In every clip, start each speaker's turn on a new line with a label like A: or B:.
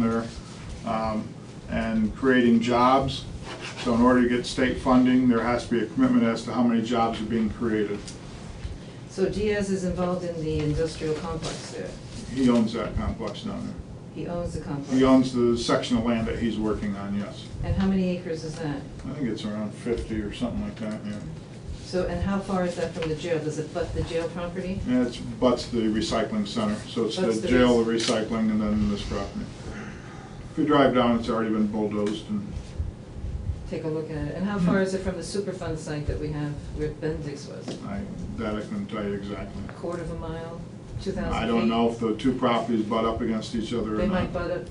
A: there um, and creating jobs. So in order to get state funding, there has to be a commitment as to how many jobs are being created.
B: So Diaz is involved in the industrial complex there.
A: He owns that complex down there.
B: He owns the complex.
A: He owns the section of land that he's working on, yes.
B: And how many acres is that?
A: I think it's around 50 or something like that, yeah.
B: So, and how far is that from the jail? Does it butt the jail property?
A: And it's, butts the recycling center, so it's
B: Butts
A: the
B: the
A: jail,
B: rec-
A: the recycling, and then this property. If you drive down, it's already been bulldozed and
B: Take a look at it. And how far is it from the Superfund site that we have where Bendix was?
A: I, that I couldn't tell you exactly.
B: A quarter of a mile, two thousand feet?
A: I don't know if the two properties butt up against each other or not.
B: They might butt up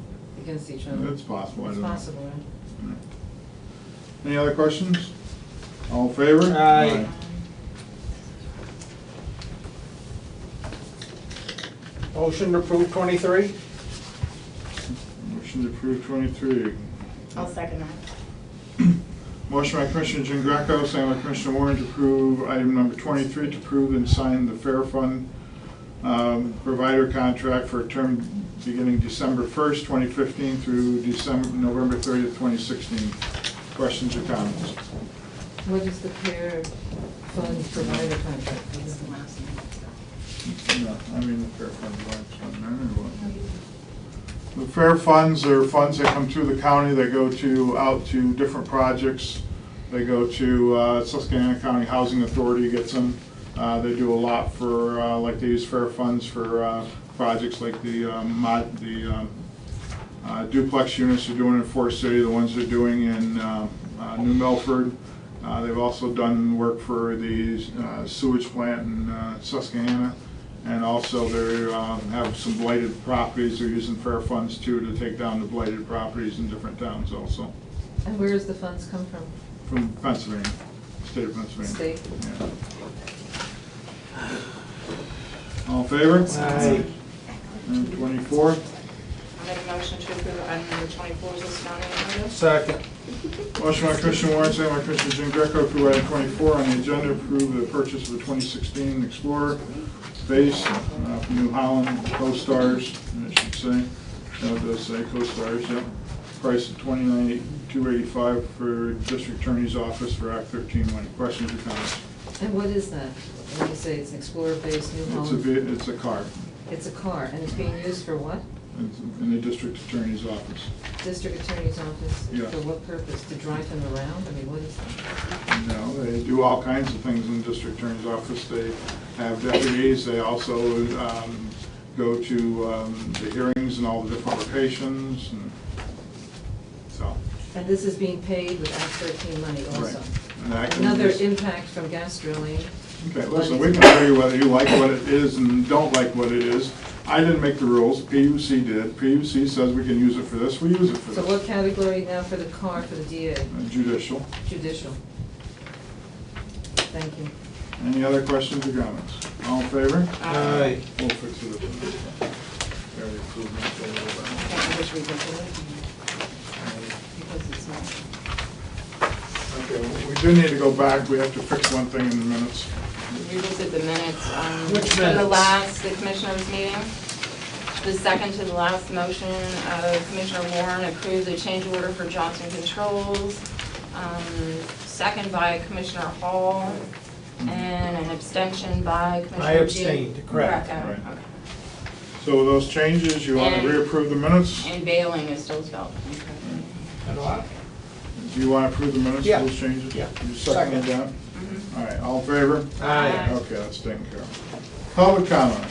B: against each other.
A: It's possible, I
B: It's
A: don't know.
B: possible, right?
A: Any other questions? All in favor?
C: Aye. Motion to approve twenty-three?
A: Motion to approve twenty-three.
D: I'll second that.
A: Motion by Commissioner Jean Greco, second by Commissioner Warren to approve item number twenty-three, to approve and sign the Fair Fund um, provider contract for a term beginning December first, twenty fifteen through December, November thirtieth, twenty sixteen. Questions or comments?
B: What is the pair fund provider contract?
D: It's the last one.
A: No, I mean, the fair fund, rights on there, or what? The fair funds are funds that come through the county, they go to, out to different projects. They go to uh, Susquehanna County Housing Authority gets them. Uh, They do a lot for, uh, like, they use fair funds for uh, projects like the um, mod, the um, uh, duplex units they're doing in Forest City, the ones they're doing in uh, uh, New Milford. Uh, They've also done work for the uh, sewage plant in uh, Susquehanna. And also they um, have some blighted properties, they're using fair funds too to take down the blighted properties in different towns also,
B: And where does the funds come from?
A: from Pennsylvania, state of Pennsylvania.
B: State.
A: Yeah. All in favor?
C: Aye.
A: And twenty-four?
D: I'll make a motion to approve item number twenty-four is listed on the agenda.
C: Second.
A: Motion by Christian Warren, second by Christian Jean Greco, approve item twenty-four on the agenda, approve the purchase of a twenty sixteen Explorer base uh, from New Holland, Co-Stars, I should say. No, it does say Co-Stars, yep. Price of twenty-nine, two eighty-five for District Attorney's Office for Act thirteen money. Questions or comments?
B: And what is that? When you say it's an Explorer-based New
A: It's a,
B: Holland?
A: ve- it's a car
B: It's a car, and it's being used for what?
A: It's in the District Attorney's Office.
B: District Attorney's Office?
A: Yeah.
B: For what purpose? To drive him around? I mean, what is that?
A: No, they do all kinds of things in the district attorney's office. They have deputies, they also um, go to um, the hearings and all the different locations, and so.
B: And this is being paid with Act thirteen money also.
A: Right. And that can
B: Another
A: just-
B: impact from gas drilling.
A: Okay, listen, we can argue whether you like what it is and don't like what it is. I didn't make the rules, PUC did. PUC says we can use it for this, we use it for
B: So what
A: this.
B: category now for the car for the DA?
A: Judicial.
B: Judicial. Thank you.
A: Any other questions or comments? All in favor?
C: Aye.
A: We'll fix it up. Very approved, very well.
D: Okay, I wish we could do it because it's not.
A: Okay, we do need to go back, we have to fix one thing in the minutes.
D: Revisit the minutes. um,
C: Which
D: From the
C: minutes?
D: last, the commissioners meeting. The second to the last motion of Commissioner Warren approved the change order for Johnson Controls. um, Second by Commissioner Hall and an abstention by Commissioner.
C: I
D: Jean-
C: abstained, correct.
D: Greco,
A: Right.
D: okay.
A: So with those changes, you want to
D: And-
A: reapprove the minutes?
D: And bailing is still spelled. incorrectly.
C: And what?
A: Do you want to approve the minutes,
C: Yeah.
A: those changes?
C: Yeah.
A: You second it down? All right, all in favor?
C: Aye.
A: Okay, that's taken care of. Public comment.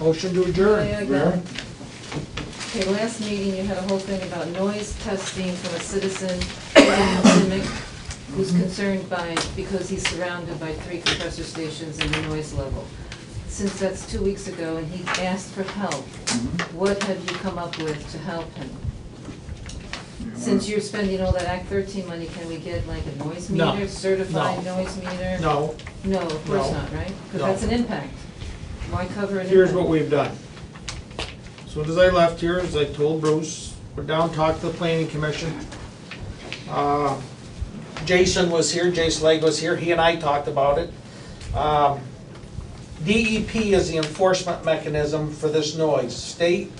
C: Motion to
B: Yeah,
C: adjourn.
B: I got
A: Vera?
B: it. Okay, last meeting, you had a whole thing about noise testing from a citizen in Dimmock who's
C: Mm-hmm.
B: concerned by, because he's surrounded by three compressor stations and the noise level. Since that's two weeks ago and he asked for help,
A: Mm-hmm.
B: what have you come up with to help him?
A: You wanna-
B: Since you're spending all that Act thirteen money, can we get like a noise
C: No.
B: meter, certified noise meter?
C: No,
B: No, of course
C: No.
B: not, right? Because
C: No.
B: that's an impact. Why cover an impact?
C: here's what we've done. As Soon as I left here, as I told Bruce, we're down, talked to the planning commission. Uh, Jason was here, Jason Leg was here, he and I talked about it. Um, DEP is the enforcement mechanism for this noise. State